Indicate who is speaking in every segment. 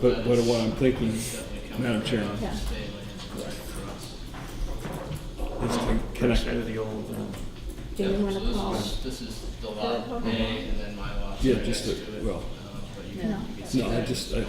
Speaker 1: But, but what I'm thinking, Madam Chair,
Speaker 2: Yeah.
Speaker 1: is to connect,
Speaker 3: Instead of the old, um,
Speaker 2: Do you want to call?
Speaker 4: This is the lot A and then my lot.
Speaker 1: yeah,
Speaker 4: right
Speaker 1: just,
Speaker 4: next to
Speaker 1: to-
Speaker 4: it.
Speaker 1: well,
Speaker 4: Um, But you
Speaker 2: No.
Speaker 1: no, I just, I,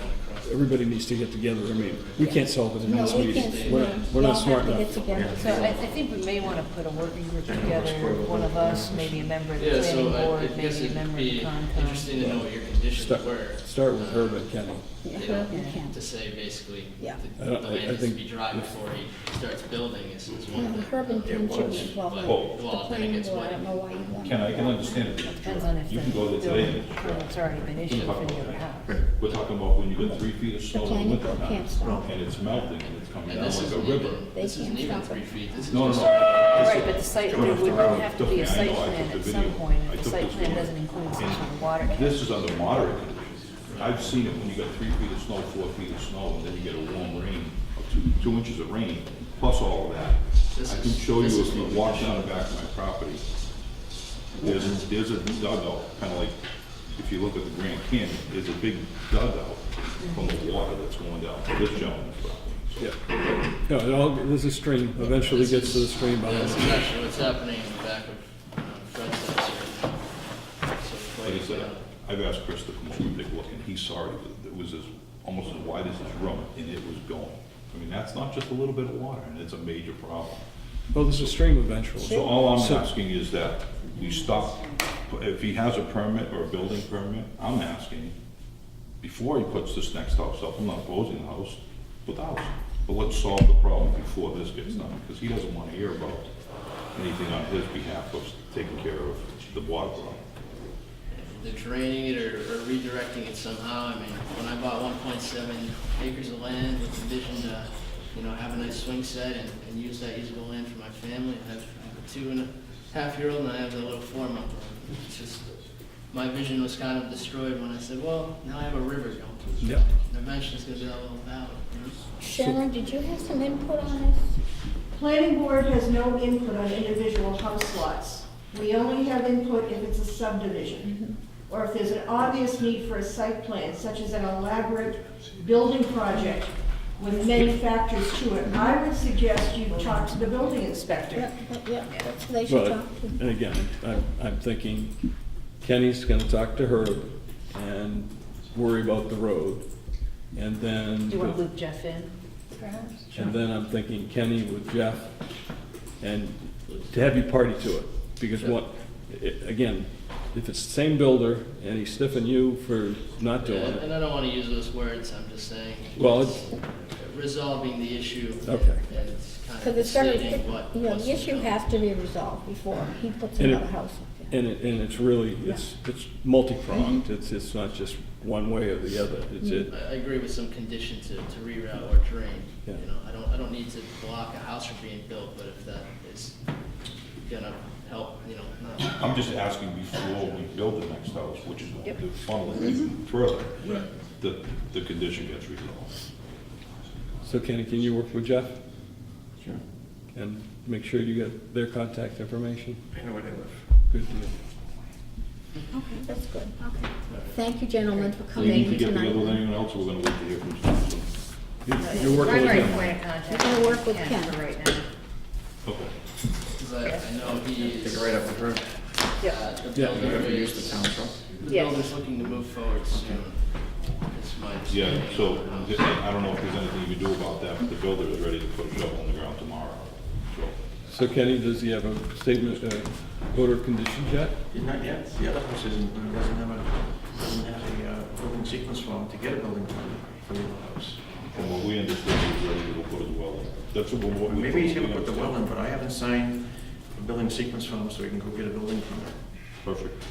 Speaker 1: everybody needs to get together. I mean, we can't solve it in
Speaker 2: No,
Speaker 1: this
Speaker 2: we
Speaker 1: meeting.
Speaker 2: can't.
Speaker 1: We're,
Speaker 2: no,
Speaker 1: not- we're not
Speaker 2: Y'all
Speaker 1: smart
Speaker 2: have to get
Speaker 1: enough.
Speaker 2: together.
Speaker 5: So I, I think we may wanna put a working group together, one of us, maybe a member of the
Speaker 4: Yeah,
Speaker 5: planning
Speaker 4: so I- I
Speaker 5: board,
Speaker 4: guess
Speaker 5: maybe a
Speaker 4: it'd
Speaker 5: member of the
Speaker 4: be
Speaker 5: Concom.
Speaker 4: interesting to know what your conditions
Speaker 1: Start,
Speaker 4: were.
Speaker 1: start with Herb and Kenny.
Speaker 2: Yeah,
Speaker 4: You
Speaker 2: Herb and
Speaker 4: know,
Speaker 2: Ken.
Speaker 4: To say basically,
Speaker 2: Yeah.
Speaker 4: the
Speaker 1: I don't-
Speaker 4: the
Speaker 1: I- I
Speaker 4: land needs to
Speaker 1: think-
Speaker 4: be dry before he starts building is is one
Speaker 2: No,
Speaker 4: thing.
Speaker 2: Herb and Ken should be involved in
Speaker 6: Well-
Speaker 2: the planning board. I don't know why you want.
Speaker 6: Ken, I can understand it.
Speaker 5: Depends on if the
Speaker 6: You can go there
Speaker 5: building,
Speaker 6: today.
Speaker 5: permit's already been issued for the other house.
Speaker 6: We're talking about when you get three feet of snow in the
Speaker 2: planning
Speaker 6: winter
Speaker 2: board can't
Speaker 6: now,
Speaker 2: stop.
Speaker 6: and it's melting and it's coming
Speaker 4: And
Speaker 6: down
Speaker 4: this
Speaker 6: like a
Speaker 4: isn't
Speaker 6: river.
Speaker 4: even,
Speaker 2: They
Speaker 4: this isn't
Speaker 2: can't
Speaker 4: even
Speaker 2: stop
Speaker 4: three
Speaker 2: it.
Speaker 4: feet, this is
Speaker 6: No, no,
Speaker 4: just.
Speaker 6: no. This
Speaker 5: Right,
Speaker 6: is-
Speaker 5: but the site, there
Speaker 6: Coming
Speaker 5: would
Speaker 6: off the ground.
Speaker 5: have to be a
Speaker 6: Trust me, I
Speaker 5: site
Speaker 6: know, I took
Speaker 5: plan
Speaker 6: the
Speaker 5: at some
Speaker 6: video.
Speaker 5: point,
Speaker 6: I
Speaker 5: if the
Speaker 6: took
Speaker 5: site
Speaker 6: this
Speaker 5: plan
Speaker 6: video.
Speaker 5: doesn't include
Speaker 6: And
Speaker 5: section of water. cap.
Speaker 6: This is under moderate conditions. I've seen it when you got three feet of snow, four feet of snow, and then you get a warm rain, or two, two inches of rain, plus all of that.
Speaker 4: This
Speaker 6: I
Speaker 4: is-
Speaker 6: can show
Speaker 4: this
Speaker 6: you
Speaker 4: is
Speaker 6: if you
Speaker 4: what we
Speaker 6: walk
Speaker 4: did.
Speaker 6: down the back of my property, there's, there's a dugout, kind of like, if you look at the Grand Canyon, there's a big dugout from the water that's going down to this gentleman's property. So
Speaker 1: Yeah. No, it all, there's a stream, eventually
Speaker 4: This
Speaker 1: gets
Speaker 4: is-
Speaker 1: to the stream
Speaker 4: Yeah,
Speaker 1: behind
Speaker 4: This
Speaker 1: us.
Speaker 4: is actually what's happening in the back of um, Fred's house here. So
Speaker 6: Like I
Speaker 4: it's
Speaker 6: said, I've asked Chris to come over and take a look, and he saw it, it was as, almost as wide as his room, and it was going. I mean, that's not just a little bit of water, and it's a major problem.
Speaker 1: Well, there's a stream eventually.
Speaker 6: So all I'm
Speaker 1: So-
Speaker 6: asking is that we stop, if he has a permit or a building permit, I'm asking, before he puts this next house up, I'm not opposing the house, but the house. But let's solve the problem before this gets done, because he doesn't want to hear about anything on his behalf of taking care of the water problem.
Speaker 4: They're draining it or or redirecting it somehow. I mean, when I bought one point seven acres of land with the vision to, you know, have a nice swing set and, and use that usable land for my family, I have a two and a half year old and I have a little four month old. It's just, my vision was kind of destroyed when I said, well, now I have a river going through.
Speaker 1: Yeah.
Speaker 4: And eventually it's gonna be that little valley, you know?
Speaker 2: Sharon, did you have some input on this?
Speaker 7: Planning board has no input on individual house lots. We only have input if it's a subdivision, or if there's an obvious need for a site plan, such as an elaborate building project with many factors to it. I would suggest you talk to the building inspector.
Speaker 2: Yeah, yeah, that's- they should
Speaker 1: But,
Speaker 2: talk to.
Speaker 1: and again, I'm, I'm thinking Kenny's gonna talk to Herb and worry about the road. And then,
Speaker 5: Do you wanna loop Jeff in, perhaps?
Speaker 1: and then I'm thinking Kenny with Jeff and to have you party to it. Because what, i- again, if it's the same builder and he's stiffing you for not doing
Speaker 4: And and
Speaker 1: it,
Speaker 4: I don't wanna use those words, I'm just saying.
Speaker 1: Well,
Speaker 4: it's Resolving the issue.
Speaker 1: Okay.
Speaker 4: And it's kind
Speaker 2: Because
Speaker 4: of
Speaker 2: it's very,
Speaker 4: stating what.
Speaker 2: you know,
Speaker 4: what's
Speaker 2: the issue
Speaker 4: developed.
Speaker 2: has to be resolved before he puts
Speaker 1: And it-
Speaker 2: another house up there.
Speaker 1: and it, and it's really, it's, it's multi-pronged. It's, it's not just one way or the other. It's it.
Speaker 4: I I agree with some condition to, to reroute or drain, you
Speaker 1: Yeah.
Speaker 4: know, I don't, I don't need to block a house from being built, but if that is gonna help, you know, not-
Speaker 6: I'm just asking before we build the next house, which is going to funnel it even further, that the condition gets resolved.
Speaker 5: Mm-hmm.
Speaker 1: So Kenny, can you work with Jeff?
Speaker 3: sure,
Speaker 1: And make sure you get their contact information.
Speaker 3: I know where they live.
Speaker 1: Good deal.
Speaker 2: Okay, that's good. Okay. Thank you, gentlemen, for
Speaker 6: Do you need
Speaker 2: coming
Speaker 6: to get
Speaker 2: tonight.
Speaker 6: together with anyone else, or we're going to wait to hear from someone?
Speaker 1: You- You're working with
Speaker 5: Primary
Speaker 1: him.
Speaker 5: point of contact.
Speaker 2: We're gonna work with Ken.
Speaker 5: For right now.
Speaker 6: Okay.
Speaker 4: 'cause I, I know he
Speaker 3: Take
Speaker 4: is,
Speaker 3: it right up the road.
Speaker 4: uh, the
Speaker 1: Yeah.
Speaker 4: builder
Speaker 3: Whoever used the
Speaker 4: is,
Speaker 3: town truck.
Speaker 4: the
Speaker 5: Yeah.
Speaker 4: builder's looking to move forward soon, is my
Speaker 6: Yeah,
Speaker 4: understanding.
Speaker 6: so I don't know if there's anything you can do about that, but the builder is ready to put a shovel in the ground tomorrow. So
Speaker 1: So Kenny, does he have a statement, uh, order of conditions yet?
Speaker 3: Not yet, the other house isn't, doesn't have a, doesn't have a uh, building sequence form to get a building permit for the other house.
Speaker 6: From what we understood, he's ready to put his well in. That's what we're...
Speaker 3: Maybe he should put the well in, but I haven't signed a building sequence form, so we can go get a building permit.
Speaker 6: Perfect.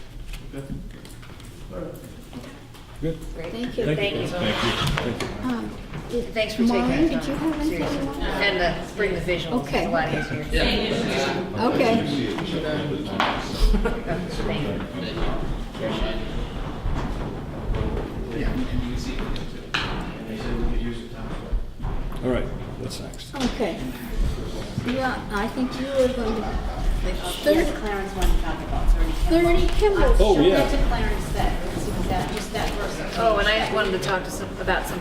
Speaker 1: Good.
Speaker 5: Great.
Speaker 2: Thank you.
Speaker 1: Thank you.
Speaker 6: Thank you.
Speaker 2: Um, did-
Speaker 5: Thanks for taking
Speaker 2: Maureen,
Speaker 5: that
Speaker 2: did you
Speaker 5: time,
Speaker 2: have anything?
Speaker 5: seriously. And uh, bring the visuals, it's
Speaker 2: Okay.
Speaker 5: a lot easier.
Speaker 2: Okay.
Speaker 5: Thank you.
Speaker 3: And they said we could use the town truck.
Speaker 1: All right, what's next?
Speaker 2: Okay. Yeah, I think you were going to,
Speaker 8: There's a Clarence one to talk about, sorry.
Speaker 2: thirty Kimball.
Speaker 1: Oh, yeah.
Speaker 8: That's a Clarence that, that, just that person.
Speaker 5: Oh, and I wanted to talk to some, about some